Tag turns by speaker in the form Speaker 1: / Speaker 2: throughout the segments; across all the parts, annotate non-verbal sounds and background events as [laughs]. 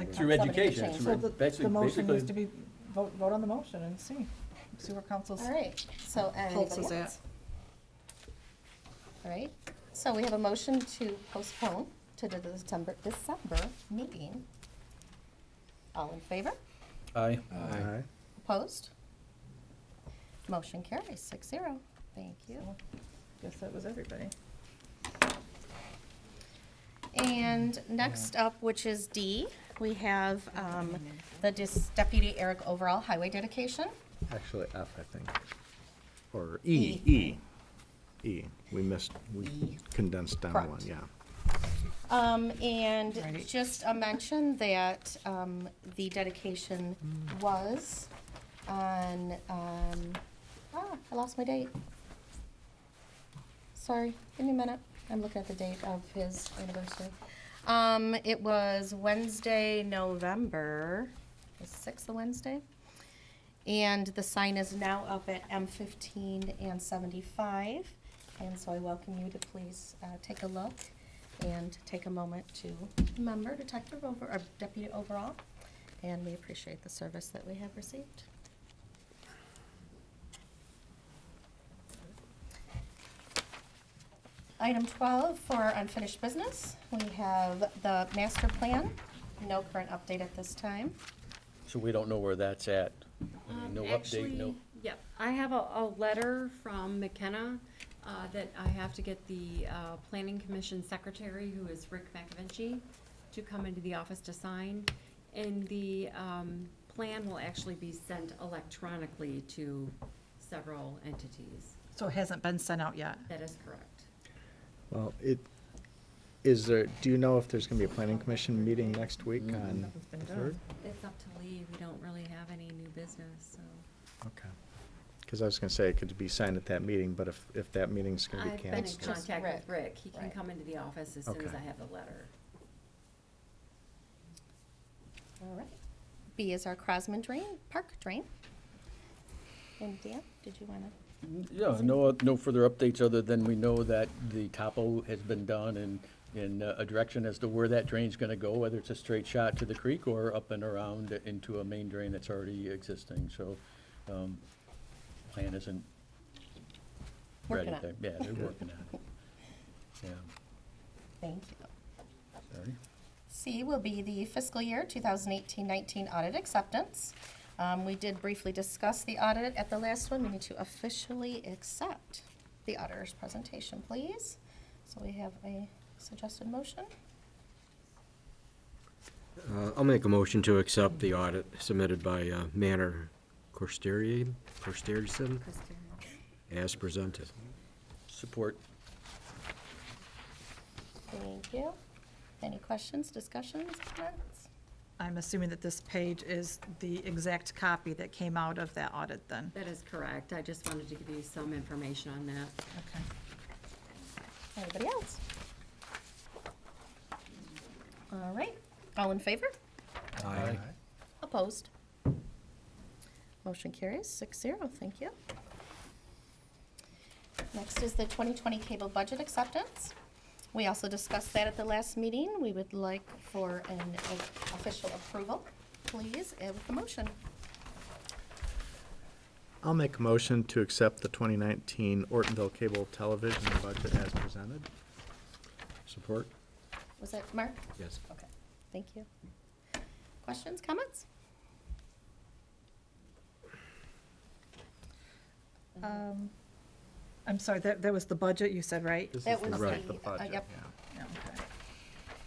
Speaker 1: Right.
Speaker 2: Through
Speaker 3: somebody to
Speaker 2: education,
Speaker 3: change.
Speaker 2: through
Speaker 4: So the,
Speaker 2: basically-
Speaker 4: the motion
Speaker 2: basically-
Speaker 4: needs to be, vote, vote on the motion and see, see where council's.
Speaker 3: All right, so, and
Speaker 1: Pulse
Speaker 3: anybody
Speaker 1: is at.
Speaker 3: else? All right, so we have a motion to postpone to the December, December meeting. All in favor?
Speaker 2: Aye.
Speaker 1: Aye.
Speaker 3: Opposed? Motion carries six zero. Thank you.
Speaker 4: Guess that was everybody.
Speaker 3: And next up, which is D, we have um, the Dis- Deputy Eric Overall Highway Dedication.
Speaker 1: Actually, F, I think. Or E.
Speaker 5: E. E, we missed,
Speaker 3: E.
Speaker 5: we condensed down one,
Speaker 3: Correct.
Speaker 5: yeah.
Speaker 3: Um, and
Speaker 4: Right.
Speaker 3: just a mention that, um, the dedication was on, um, ah, I lost my date. Sorry, give me a minute, I'm looking at the date of his anniversary. Um, it was Wednesday, November, the sixth of Wednesday. And the sign is now up at M fifteen and seventy-five. And so I welcome you to please, uh, take a look and take a moment to remember Detective Over, or Deputy Overall. And we appreciate the service that we have received. Item twelve for unfinished business, we have the master plan, no current update at this time.
Speaker 2: So we don't know where that's at. I mean,
Speaker 6: Um,
Speaker 2: No update, no.
Speaker 6: actually, Yep, I have a, a letter from McKenna, uh, that I have to get the, uh, planning commission secretary, who is Rick McAvinci, to come into the office to sign, and the, um, plan will actually be sent electronically to several entities.
Speaker 4: So it hasn't been sent out yet?
Speaker 6: That is correct.
Speaker 5: Well, it, is there, do you know if there's gonna be a planning commission meeting next week on
Speaker 4: Nothing's been
Speaker 5: the
Speaker 4: done.
Speaker 5: third?
Speaker 6: It's up to Lee, we don't really have any new business, so.
Speaker 5: Okay. Cause I was gonna say it could be signed at that meeting, but if, if that meeting's gonna be
Speaker 6: I've been in
Speaker 5: canceled.
Speaker 3: Just
Speaker 6: contact with
Speaker 3: Rick,
Speaker 6: Rick, he can
Speaker 3: right.
Speaker 6: come into the office as soon as
Speaker 5: Okay.
Speaker 6: I have the letter.
Speaker 3: All right. B is our Crosman Drain, Park Drain. And Dan, did you wanna?
Speaker 2: Yeah, no, uh, no further updates other than we know that the topo has been done and in uh, a direction as to where that drain's gonna go, whether it's a straight shot to the creek or up and around into a main drain that's already existing, so, um, plan isn't ready.
Speaker 3: Working on it.
Speaker 2: They- Yeah, they're working on
Speaker 3: [laughs]
Speaker 2: it. Yeah,
Speaker 3: Thank you.
Speaker 2: sorry.
Speaker 3: C will be the fiscal year 2018-19 audit acceptance. Um, We did briefly discuss the audit at the last one. We need to officially accept the auditor's presentation, please. So we have a suggested motion.
Speaker 7: Uh, I'll make a motion to accept the audit submitted by uh, Manor Corsteri, Corsterison, as presented.
Speaker 2: Support.
Speaker 3: Thank you. Any questions, discussions, comments?
Speaker 4: I'm assuming that this page is the exact copy that came out of that audit then?
Speaker 6: That is correct, I just wanted to give you some information on that.
Speaker 4: Okay.
Speaker 3: Anybody else? All right, all in favor?
Speaker 7: Aye.
Speaker 3: Opposed? Motion carries six zero, thank you. Next is the 2020 cable budget acceptance. We also discussed that at the last meeting. We would like for an official approval, please, uh, with the motion.
Speaker 5: I'll make a motion to accept the twenty nineteen Ortonville Cable Television budget as presented.
Speaker 7: Support?
Speaker 3: Was that Mark?
Speaker 7: Yes.
Speaker 3: Okay, thank you. Questions, comments?
Speaker 4: Um, I'm sorry, that, that was the budget you said, right?
Speaker 5: This
Speaker 3: That
Speaker 5: is the-
Speaker 3: was
Speaker 5: right,
Speaker 3: the- uh,
Speaker 5: budget,
Speaker 3: yep.
Speaker 5: yeah.
Speaker 4: Yeah, okay.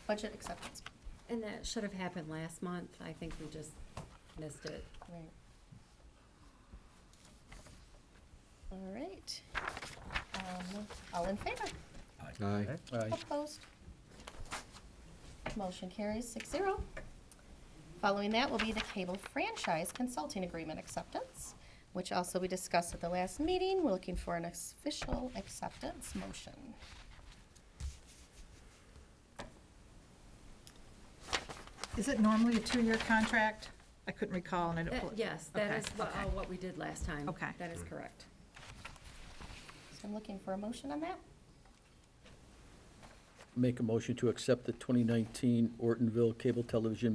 Speaker 3: Budget acceptance.
Speaker 6: And that should have happened last month. I think we just missed it.
Speaker 3: Right. All right. Um, All in favor?
Speaker 7: Aye.
Speaker 2: Aye.
Speaker 3: Opposed? Motion carries six zero. Following that will be the cable franchise consulting agreement acceptance, which also we discussed at the last meeting. We're looking for an official acceptance motion.
Speaker 4: Is it normally a two-year contract? I couldn't recall and I didn't.
Speaker 6: That-
Speaker 4: pull it-
Speaker 6: Yes, that
Speaker 4: Okay,
Speaker 6: is what,
Speaker 4: okay.
Speaker 6: uh, what we did last time.
Speaker 4: Okay.
Speaker 6: That is correct.
Speaker 3: So I'm looking for a motion on that.
Speaker 2: Make a motion to accept the 2019 Ortonville Cable Television